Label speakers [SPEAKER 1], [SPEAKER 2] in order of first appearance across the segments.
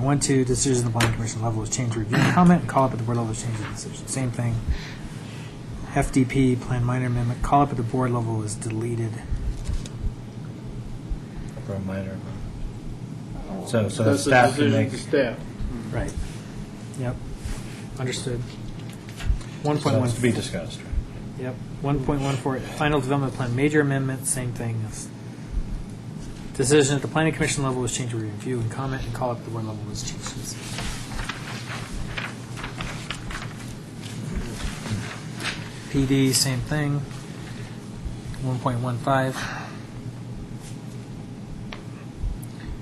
[SPEAKER 1] 1.12, decisions at the planning commission level is change review and comment, call up at the board level is change of decision, same thing. FDP, plan minor amendment, call up at the board level is deleted.
[SPEAKER 2] Or minor. So, so the
[SPEAKER 3] Oh. That's
[SPEAKER 2] staff
[SPEAKER 3] a
[SPEAKER 2] can
[SPEAKER 3] decision
[SPEAKER 2] make,
[SPEAKER 3] to staff.
[SPEAKER 1] Right. Yep, understood.
[SPEAKER 2] so that's to be
[SPEAKER 1] 1.14,
[SPEAKER 2] discussed.
[SPEAKER 1] yep, 1.14, final development plan, major amendment, same thing. as- Decision at the planning commission level is change of review and comment, and call up at the board level is change of decision. PD, same thing. 1.15.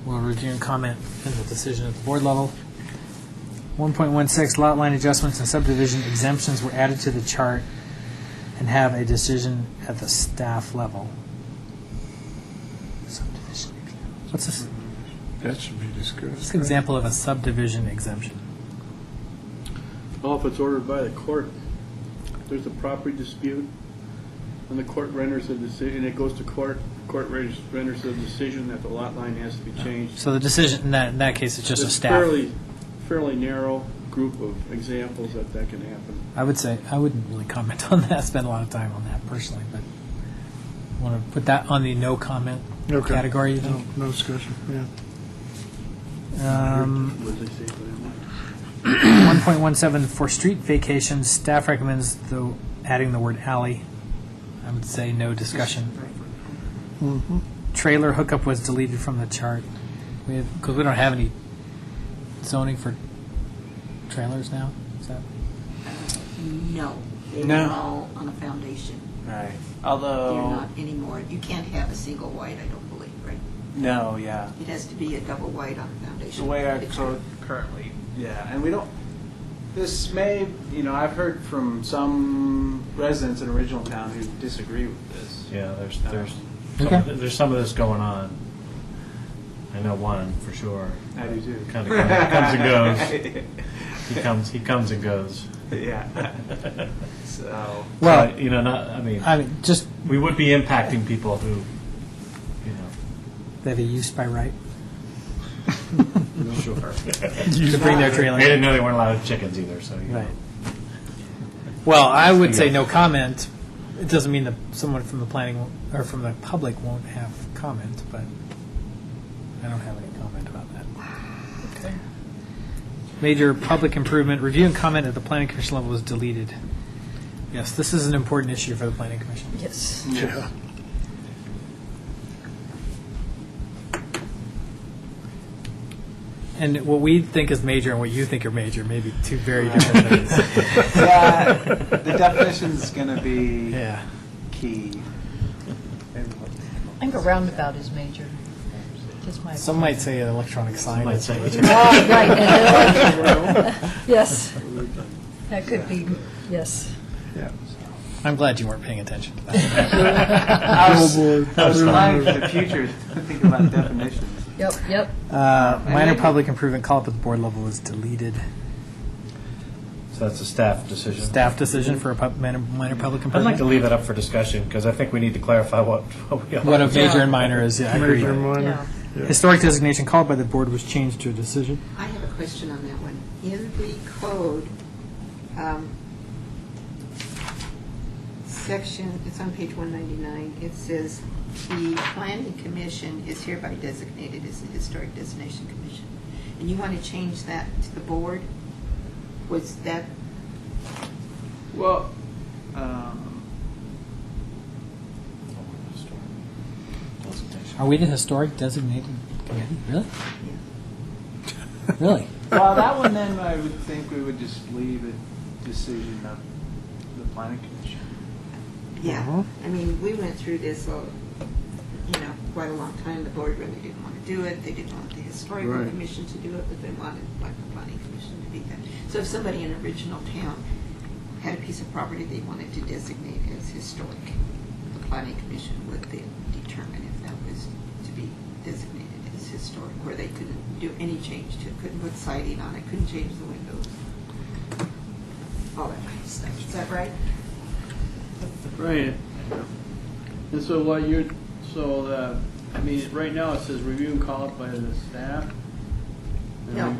[SPEAKER 1] We'll review and comment in the decision at the board level. 1.16, lot line adjustments and subdivision exemptions were added to the chart and have a decision at the staff level. Subdivision. exemption. What's this?
[SPEAKER 4] That should be
[SPEAKER 1] What's
[SPEAKER 4] discussed.
[SPEAKER 1] an example of a subdivision exemption?
[SPEAKER 3] Well, if it's ordered by the court, there's a property dispute, and the court renders a decision, it goes to court, court renders renders a decision that the lot line has to be changed.
[SPEAKER 1] So the decision, in that, in that case, it's just a
[SPEAKER 3] It's
[SPEAKER 1] staff.
[SPEAKER 3] Fairly, fairly narrow group of examples that that can happen.
[SPEAKER 1] I would say, I wouldn't really comment on that, spend a lot of time on that personally, but want to put that on the no comment
[SPEAKER 4] Okay.
[SPEAKER 1] category, you
[SPEAKER 4] No,
[SPEAKER 1] think?
[SPEAKER 4] no discussion, yeah.
[SPEAKER 1] Um,
[SPEAKER 3] What does it say for that one?
[SPEAKER 1] 1.17, for street vacations, staff recommends though adding the word alley. I would say no discussion. Trailer hookup was deleted from the chart. We have, because we don't have any zoning for trailers now, is that?
[SPEAKER 5] No, they
[SPEAKER 1] No.
[SPEAKER 5] were all on a foundation.
[SPEAKER 6] Right.
[SPEAKER 5] They're
[SPEAKER 6] Although,
[SPEAKER 5] not anymore. You can't have a single white, I don't believe, right?
[SPEAKER 6] no, yeah.
[SPEAKER 5] It has to be a double white on a
[SPEAKER 6] The
[SPEAKER 5] foundation.
[SPEAKER 6] way our
[SPEAKER 5] picture.
[SPEAKER 6] code currently, yeah, and we don't, this may, you know, I've heard from some residents in original town who disagree with this.
[SPEAKER 2] Yeah, there's, there's,
[SPEAKER 1] Okay.
[SPEAKER 2] some- there's some of this going on. I know one for sure.
[SPEAKER 6] I do too.
[SPEAKER 2] Kind of comes and goes. He comes, he comes and goes.
[SPEAKER 6] Yeah, so,
[SPEAKER 1] Well-
[SPEAKER 2] But, You know, not, I mean,
[SPEAKER 1] I mean, just,
[SPEAKER 2] we would be impacting people who, you
[SPEAKER 1] they have a use by right
[SPEAKER 2] know. Sure.
[SPEAKER 1] to bring their trailer.
[SPEAKER 2] They didn't know they weren't allowed chickens either, so, you know.
[SPEAKER 1] Right. Well, I would say no comment. It doesn't mean that someone from the planning, won't- or from the public won't have comment, but I don't have any comment about that. Major public improvement, review and comment at the planning commission level is deleted. Yes, this is an important issue for the planning commission.
[SPEAKER 5] Yes.
[SPEAKER 4] Yeah.
[SPEAKER 1] And what we think is major and what you think are major may be two very different things.
[SPEAKER 6] yeah, the definition's going to be
[SPEAKER 1] Yeah.
[SPEAKER 6] key.
[SPEAKER 7] I think a roundabout is major, just my.
[SPEAKER 1] Some might say an electronic sign.
[SPEAKER 2] Might say. Oh,
[SPEAKER 7] Oh, right. Yes. That could be, yes.
[SPEAKER 1] I'm glad you weren't paying attention to that.
[SPEAKER 6] I was I was
[SPEAKER 2] That's fine.
[SPEAKER 6] reminded in the future to think about definitions.
[SPEAKER 7] Yep, yep.
[SPEAKER 1] Uh, Minor
[SPEAKER 6] maybe-
[SPEAKER 1] public improvement call up at the board level is deleted.
[SPEAKER 2] So that's a staff decision.
[SPEAKER 1] Staff decision for a pub- minor, minor public
[SPEAKER 2] I'd like
[SPEAKER 1] improvement?
[SPEAKER 2] to leave that up for discussion, because I think we need to clarify what, what we are.
[SPEAKER 1] What a major and minor is, yeah, I
[SPEAKER 4] Major
[SPEAKER 1] agree.
[SPEAKER 4] minor,
[SPEAKER 7] Yeah.
[SPEAKER 1] Historic designation called by the board was changed to a decision.
[SPEAKER 5] I have a question on that one. In the code, um, section, it's on page 199, it says, "The planning commission is hereby designated as the historic designation commission." And you want to change that to the board? Was that
[SPEAKER 6] Well, um,
[SPEAKER 1] Are we the historic designated committee? Really? Really?
[SPEAKER 6] well, that one then I would think we would just leave a decision of the planning commission.
[SPEAKER 5] Yeah,
[SPEAKER 1] Mhm.
[SPEAKER 5] I mean, we went through this, uh, you know, quite a long time. The board really didn't want to do it. They didn't want the historical
[SPEAKER 4] Right.
[SPEAKER 5] commission to do it, but they wanted like the planning commission to be that. So if somebody in an original town had a piece of property they wanted to designate as historic, the planning commission would then determine if that was to be designated as historic, where they couldn't do any change to it, couldn't put siding on it, couldn't change the windows, all that kind of stuff. Is that right?
[SPEAKER 3] Right. And so what uh, you're, so the, I mean, right now it says review and call it by the staff.
[SPEAKER 5] No.